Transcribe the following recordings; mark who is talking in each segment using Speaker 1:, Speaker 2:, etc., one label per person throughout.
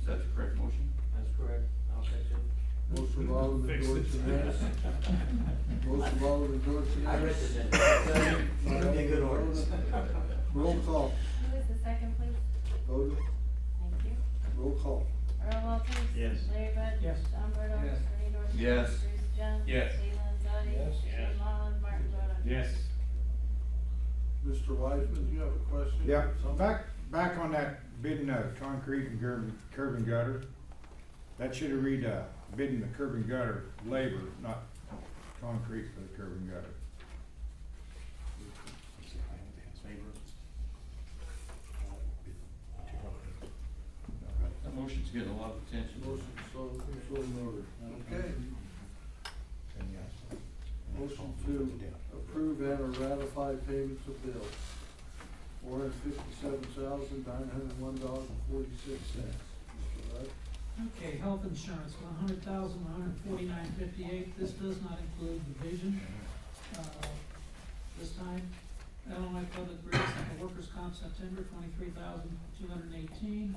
Speaker 1: Is that the correct motion?
Speaker 2: That's correct, I'll second.
Speaker 3: Motion by Alderman
Speaker 4: Fix it.
Speaker 3: Dorchenez. Motion by Alderman Dorchenez.
Speaker 2: I read the minutes.
Speaker 3: By
Speaker 2: It'll be a good
Speaker 3: Alderman
Speaker 2: ordinance.
Speaker 3: Rhoda. Roll call,
Speaker 5: Who is the second, please?
Speaker 3: Oda,
Speaker 5: Thank you.
Speaker 3: roll call.
Speaker 5: Earl Walters.
Speaker 4: Yes.
Speaker 5: Larry Bud.
Speaker 2: Yes.
Speaker 5: Sean Burdell.
Speaker 2: Yes.
Speaker 5: Bernie Dorchenez.
Speaker 1: Yes.
Speaker 5: Bruce Jones.
Speaker 4: Yes.
Speaker 5: Lee Landzadi.
Speaker 2: Yes.
Speaker 5: Jim Mullins, Martin Boda.
Speaker 3: Mr. Wiseman, do you have a question?
Speaker 6: Yeah,
Speaker 3: Something?
Speaker 6: back, back on that bidding of concrete and curb, curb and gutter, that should have read, uh, bidding the curb and gutter labor, not concrete for the curb and gutter.
Speaker 1: That motion's getting a lot of attention.
Speaker 3: Motion, so, so ordered. Okay, motion to approve and or ratify payments of bills. Four hundred fifty-seven thousand, nine hundred one dollars and forty-six cents. Mr. Rudd?
Speaker 7: Okay, health insurance, one hundred thousand, one hundred forty-nine fifty-eight, this does not include the vision, uh, this time. Illinois Public Rates and the Workers' Comp, September twenty-three thousand, two hundred and eighteen.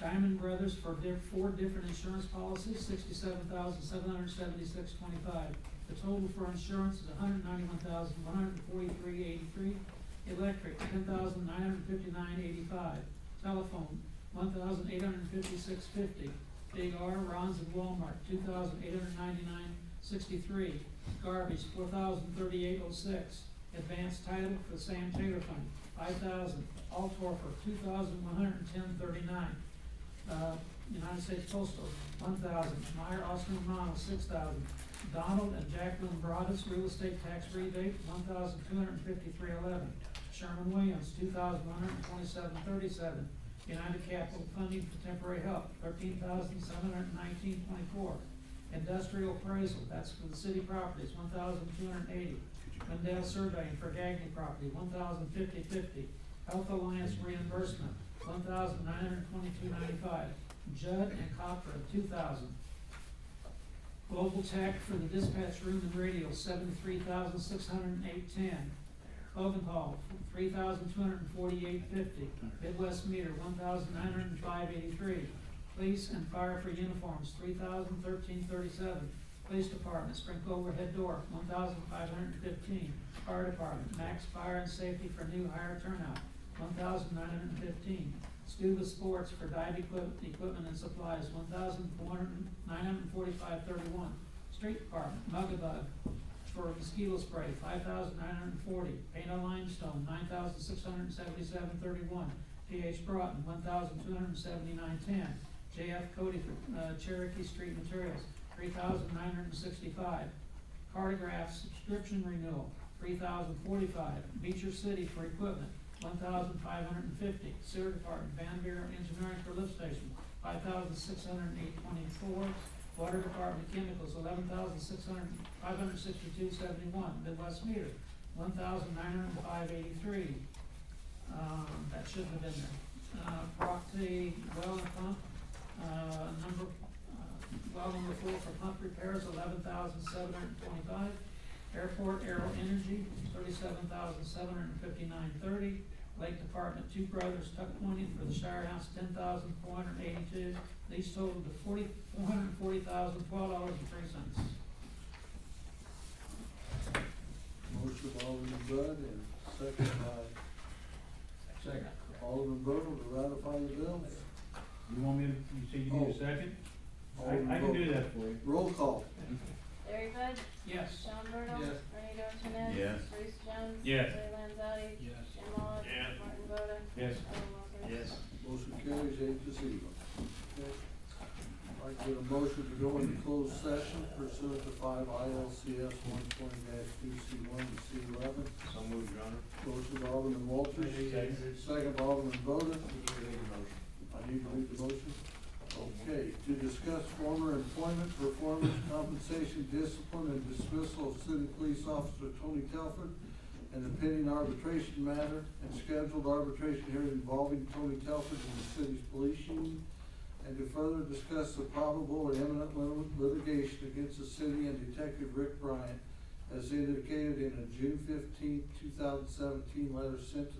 Speaker 7: Diamond Brothers for their four different insurance policies, sixty-seven thousand, seven hundred seventy-six twenty-five. The total for insurance is hundred ninety-one thousand, one hundred forty-three eighty-three. Electric, ten thousand, nine hundred fifty-nine eighty-five. Telephone, one thousand eight hundred fifty-six fifty. Big R, Ron's and Walmart, two thousand eight hundred ninety-nine sixty-three. Garbage, four thousand thirty-eight oh six. Advanced title for the Sam Taylor Fund, five thousand. All Torfer, two thousand one hundred ten thirty-nine. Uh, United States Postal, one thousand. Meyer Austin Romano, six thousand. Donald and Jacqueline Broadus, real estate tax rebate, one thousand two hundred fifty-three eleven. Sherman Williams, two thousand one hundred twenty-seven thirty-seven. United Capital Funding for Temporary Help, thirteen thousand seven hundred nineteen twenty-four. Industrial appraisal, that's for the city properties, one thousand two hundred eighty. Mendel surveying for Gagny property, one thousand fifty fifty. Health Alliance reimbursement, one thousand nine hundred twenty-two ninety-five. Judd and Copra, two thousand. Global Tech for the dispatch room and radio, seventy-three thousand six hundred eight ten. Ovenhall, three thousand two hundred and forty-eight fifty. Midwest meter, one thousand nine hundred and five eighty-three. Police and fire for uniforms, three thousand thirteen thirty-seven. Police department, sprinkle overhead door, one thousand five hundred and fifteen. Fire department, max fire and safety for new hire turnout, one thousand nine hundred and fifteen. Scuba sports for dive equip, equipment and supplies, one thousand four hundred, nine hundred and forty-five thirty-one. Street department, Mugabug, for mosquito spray, five thousand nine hundred and forty. Paint on limestone, nine thousand six hundred and seventy-seven thirty-one. PH Broughton, one thousand two hundred and seventy-nine ten. JF Cody for uh, Cherokee Street Materials, three thousand nine hundred and sixty-five. Cartograph subscription renewal, three thousand forty-five. Beecher City for equipment, one thousand five hundred and fifty. Sewer Department, Van Buren Engineering for lift station, five thousand six hundred and eight twenty-four. Water Department Chemicals, eleven thousand six hundred, five hundred sixty-two seventy-one, Midwest Meter, one thousand nine hundred and five eighty-three. Um, that shouldn't have been there. Uh, Procty Well and Pump, uh, number, uh, well number four for pump repairs, eleven thousand seven hundred twenty-five. Airport Aero Energy, thirty-seven thousand seven hundred fifty-nine thirty. Lake Department, Two Brothers Tuck Pointing for the Shire House, ten thousand four hundred eighty-two. These total to forty, four hundred and forty thousand, twelve dollars and three cents.
Speaker 3: Motion by Alderman Bud and second by
Speaker 7: Second.
Speaker 3: Alderman Bodel to ratify the bills.
Speaker 4: You want me to, you say you
Speaker 3: Oh.
Speaker 4: need a second?
Speaker 3: Alderman
Speaker 4: I, I can do
Speaker 3: Bodel.
Speaker 4: that for you.
Speaker 3: Oh, Roll call.
Speaker 5: Larry Bud.
Speaker 7: Yes.
Speaker 5: Sean Burdell.
Speaker 3: Yes.
Speaker 5: Bernie Dorchenez.
Speaker 1: Yes.
Speaker 5: Bruce Jones.
Speaker 4: Yes.
Speaker 5: Lee Landzadi.
Speaker 2: Yes.
Speaker 5: Jim Mullins.
Speaker 4: Yes.
Speaker 5: Martin Boda.
Speaker 4: Yes.
Speaker 5: Earl Walters.
Speaker 3: Motion carries eight to zero. Okay. I'd like to get a motion to go into closed session pursuant to five ILCS one twenty two C one to C eleven.
Speaker 2: So moved, Your Honor.
Speaker 3: Motion by Alderman Walters, second by Alderman Boda. I need to read the motion. Okay, to discuss former employment, performance, compensation, discipline, and dismissal of city police officer Tony Telford and the pending arbitration matter and scheduled arbitration hearing involving Tony Telford and the city's police union, and to further discuss the probable or imminent lit- litigation against the city and Detective Rick Bryant as indicated in a June fifteenth, two thousand seventeen letter sent to